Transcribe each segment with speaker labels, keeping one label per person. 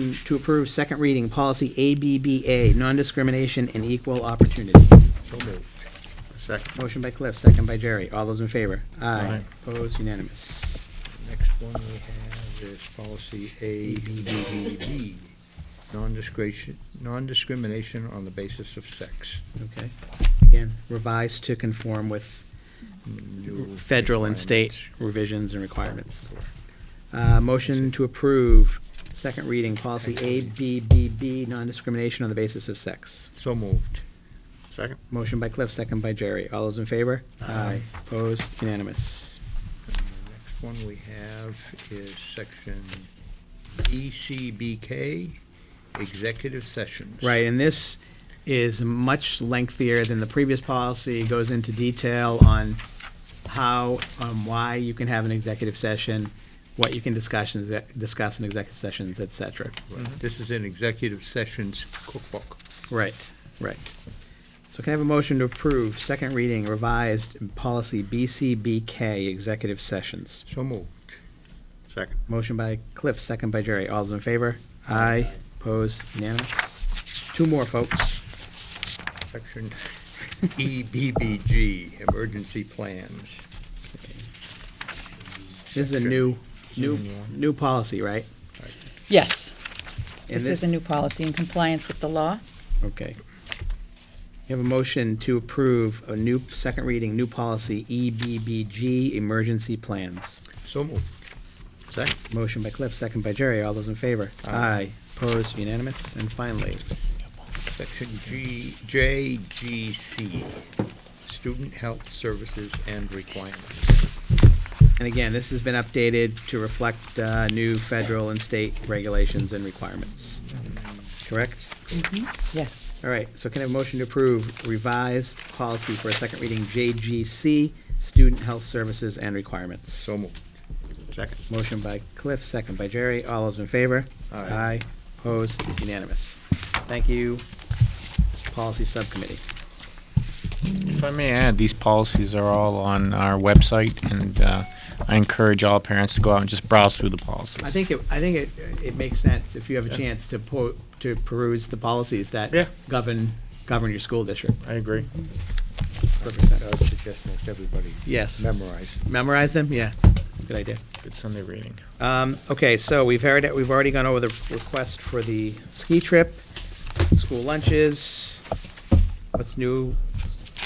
Speaker 1: to approve second reading, policy ABBA, non-discrimination and equal opportunity.
Speaker 2: So moved. Second.
Speaker 1: Motion by Cliff, second by Jerry. All those in favor?
Speaker 2: Aye.
Speaker 1: Opposed, unanimous.
Speaker 2: Next one we have is policy ABBB, non-discrimination, non-discrimination on the basis of sex.
Speaker 1: Okay. Again, revised to conform with
Speaker 2: New
Speaker 1: federal and state
Speaker 2: requirements.
Speaker 1: revisions and requirements. Uh, motion to approve second reading, policy ABBB, non-discrimination on the basis of sex.
Speaker 2: So moved. Second.
Speaker 1: Motion by Cliff, second by Jerry. All those in favor? Aye. Opposed, unanimous.
Speaker 2: Next one we have is section E ECBK, executive sessions.
Speaker 1: Right, and this is much lengthier than the previous policy, It goes into detail on how, um, why you can have an executive session, what you can discuss, in exec- discuss in executive sessions, et cetera.
Speaker 2: Right. This is an executive sessions cookbook.
Speaker 1: Right, right. So can I have a motion to approve second reading revised policy BCBK, executive sessions?
Speaker 2: So moved. Second.
Speaker 1: Motion by Cliff, second by Jerry. All those in favor? Aye. Opposed? Unanimous? Two more, folks.
Speaker 2: Section E EBBG, emergency plans.
Speaker 1: This is a
Speaker 2: Sure.
Speaker 1: new, new,
Speaker 2: Yeah.
Speaker 1: new policy, right?
Speaker 3: Yes,
Speaker 1: And
Speaker 3: this is a new policy in compliance with the law.
Speaker 1: Okay. You have a motion to approve a new, second reading, new policy, E EBBG, emergency plans.
Speaker 2: So moved. Second.
Speaker 1: Motion by Cliff, second by Jerry. All those in favor?
Speaker 2: Aye.
Speaker 1: Opposed, unanimous. And finally,
Speaker 2: Section G, JGC, student health services and requirements.
Speaker 1: and again, this has been updated to reflect uh, new federal and state regulations and requirements. Correct?
Speaker 3: Yes,
Speaker 1: All right, so can I have a motion to approve revised policy for a second reading, JGC, student health services and requirements?
Speaker 2: So moved. Second.
Speaker 1: Motion by Cliff, second by Jerry. All those in favor?
Speaker 2: Aye.
Speaker 1: Opposed? Unanimous. Thank you, Policy Subcommittee.
Speaker 4: If I may add, these policies are all on our website, and uh, I encourage all parents to go out and just browse through the policies.
Speaker 1: I think, it. I think it, it makes sense if you have a chance to po, to peruse the policies that
Speaker 4: Yeah.
Speaker 1: govern, govern your school district.
Speaker 4: I agree.
Speaker 1: Perfect
Speaker 2: I
Speaker 1: sense.
Speaker 2: would suggest most everybody
Speaker 1: Yes.
Speaker 2: memorize.
Speaker 1: Memorize them? Yeah, good idea.
Speaker 4: Good Sunday reading.
Speaker 1: Um, okay, so we've heard, it- we've already gone over the request for the ski trip, school lunches, what's new,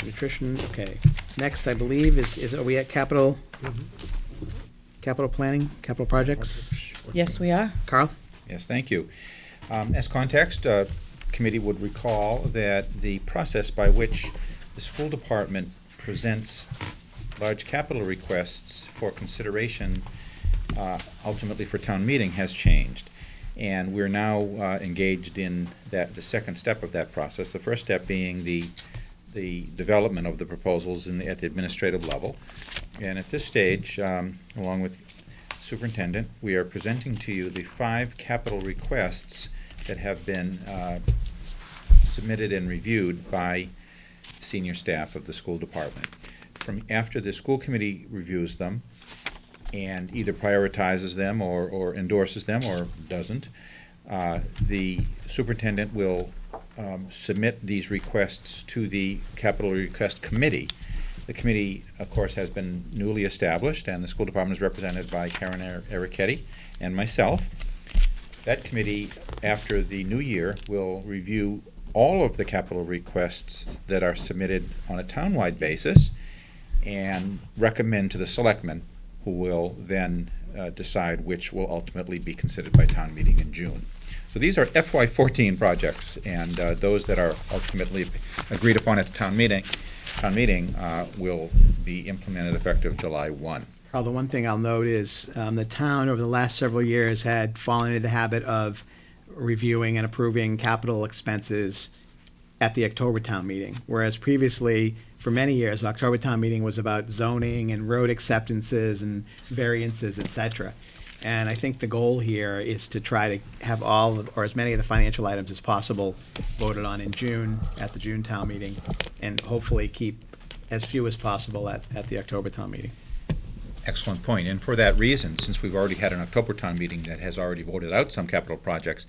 Speaker 1: nutrition, okay. Next, I believe, is, is, are we at capital? Capital planning, capital projects?
Speaker 3: yes, we are.
Speaker 1: Carl?
Speaker 5: Yes, thank you. Um, As context, uh, committee would recall that the process by which the school department presents large capital requests for consideration, uh, ultimately for town meeting, has changed. And we're now uh, engaged in that, the second step of that process. The first step being the, the development of the proposals in, the- at the administrative level. And at this stage, um, along with Superintendent, we are presenting to you the five capital requests that have been uh, submitted and reviewed by senior staff of the school department. From, after the school committee reviews them and either prioritizes them or, or endorses them or doesn't, uh, the superintendent will um, submit these requests to the capital request committee. The committee, of course, has been newly established, and the school department is represented by Karen Er- Ericetti and myself. That committee, after the new year, will review all of the capital requests that are submitted on a townwide basis and recommend to the selectmen, who will then uh, decide which will ultimately be considered by town meeting in June. So these are FY fourteen projects, and uh, those that are ultimately agreed upon at the town meeting, town meeting uh, will be implemented effective July one.
Speaker 1: Carl, the one thing I'll note is, um, the town over the last several years had fallen into the habit of reviewing and approving capital expenses at the October town meeting, whereas previously, for many years, October town meeting was about zoning and road acceptances and variances, et cetera. And I think the goal here is to try to have all, of- or as many of the financial items as possible voted on in June, at the June town meeting, and hopefully keep as few as possible at, at the October town meeting.
Speaker 5: Excellent point, and for that reason, since we've already had an October town meeting that has already voted out some capital projects,